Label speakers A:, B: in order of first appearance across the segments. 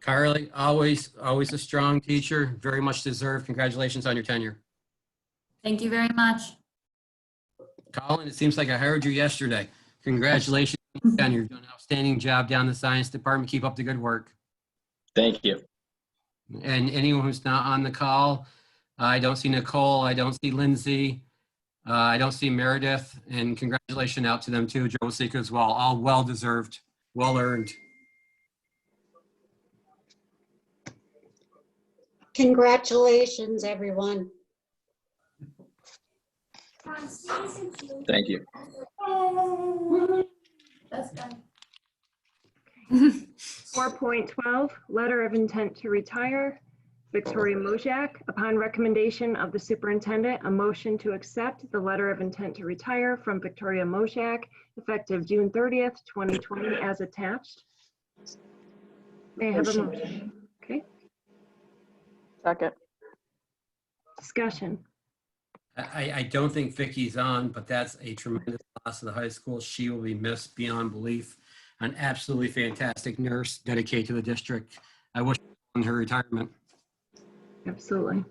A: Carly, always, always a strong teacher, very much deserved. Congratulations on your tenure.
B: Thank you very much.
A: Colin, it seems like I hired you yesterday. Congratulations on your tenure. You've done an outstanding job down in the science department. Keep up the good work.
C: Thank you.
A: And anyone who's not on the call, I don't see Nicole, I don't see Lindsay, uh, I don't see Meredith, and congratulations out to them too, Joe Sika as well. All well-deserved, well-earned.
D: Congratulations, everyone.
C: Thank you.
B: That's done.
E: 4.12, letter of intent to retire. Victoria Mojak, upon recommendation of the superintendent, a motion to accept the letter of intent to retire from Victoria Mojak effective June 30th, 2020, as attached. May I have a
D: Motion.
E: motion? Okay,
F: Second.
E: discussion.
A: I, I don't think Vicky's on, but that's a tremendous loss to the high school. She will be missed beyond belief. An absolutely fantastic nurse dedicated to the district. I wish her on her retirement.
E: Absolutely.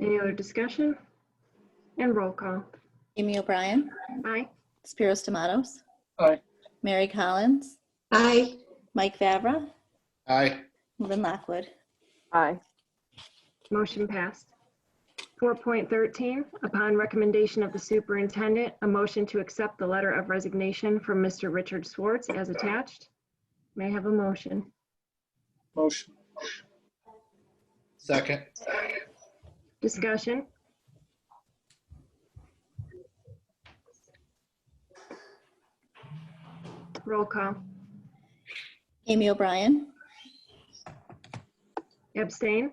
E: Any other discussion? And roll call.
G: Amy O'Brien,
E: Aye.
G: Spiros Tomatoes.
C: Aye.
G: Mary Collins,
D: Aye.
G: Mike Fabra,
C: Aye.
G: Lynn Lockwood.
F: Aye.
E: Motion passed. 4.13, upon recommendation of the superintendent, a motion to accept the letter of resignation from Mr. Richard Swartz as attached. May I have a motion?
C: Motion.
H: Second,
E: Discussion? Roll call.
G: Amy O'Brien,
E: Abstain?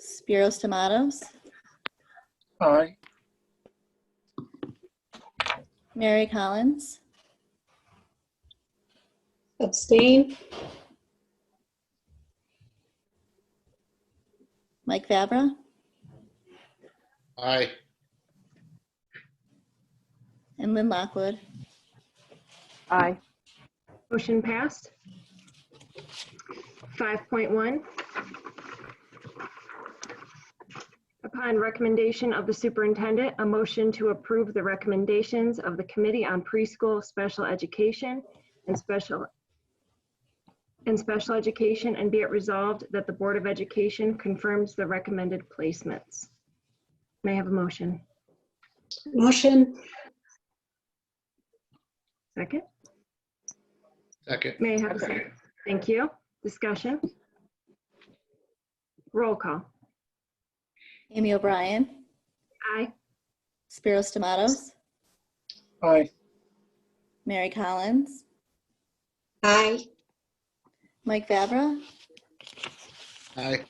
G: Spiros Tomatoes,
C: Aye.
G: Mary Collins,
D: Abstain?
G: Mike Fabra,
H: aye,
G: and Lynn Lockwood.
F: Aye.
E: Motion passed. 5.1. Upon recommendation of the superintendent, a motion to approve the recommendations of the Committee on Preschool Special Education and Special and Special Education, and be it resolved that the Board of Education confirms the recommended placements. May I have a motion?
D: Motion?
E: Second?
H: second,
E: May I have a second? Thank you. Discussion? Roll call.
G: Amy O'Brien,
E: Aye.
G: Spiros Tomatoes,
C: Aye.
G: Mary Collins,
D: Aye.
G: Mike Fabra,
H: aye,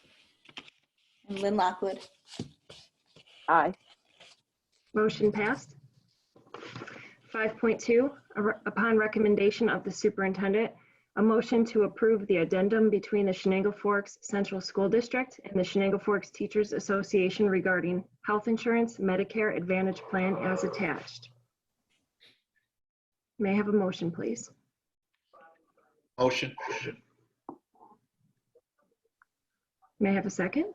G: and Lynn Lockwood.
F: Aye.
E: Motion passed. 5.2, a re- upon recommendation of the superintendent, a motion to approve the addendum between the Shenango Forks Central School District and the Shenango Forks Teachers Association regarding health insurance Medicare Advantage Plan as attached. May I have a motion, please?
H: motion,
E: May I have a second?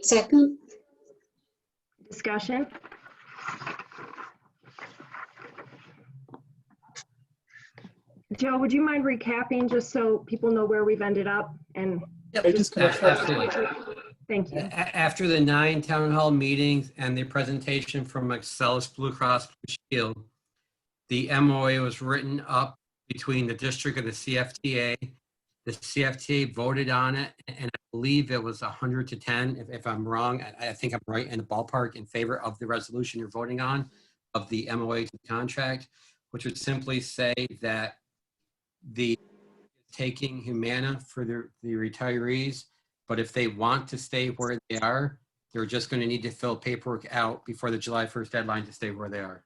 D: Second?
E: Discussion? Joe, would you mind recapping just so people know where we've ended up and
A: Absolutely.
E: Thank you.
A: A- a- After the nine town hall meetings and the presentation from Excellus Blue Cross Blue Shield, the MOA was written up between the district and the CFTA. The CFTA voted on it, and I believe it was 100 to 10. If- If I'm wrong, I- I think I'm right in the ballpark in favor of the resolution you're voting on of the MOA to the contract, which would simply say that the taking Humana for the the retirees but if they want to stay where they are, they're just going to need to fill paperwork out before the July 1st deadline to stay where they are.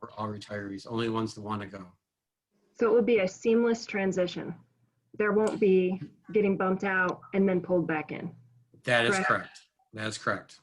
A: For all retirees, only ones that want to go.
E: So it will be a seamless transition. There won't be getting bumped out and then pulled back in.
A: That is
E: Correct.
A: correct. That is correct.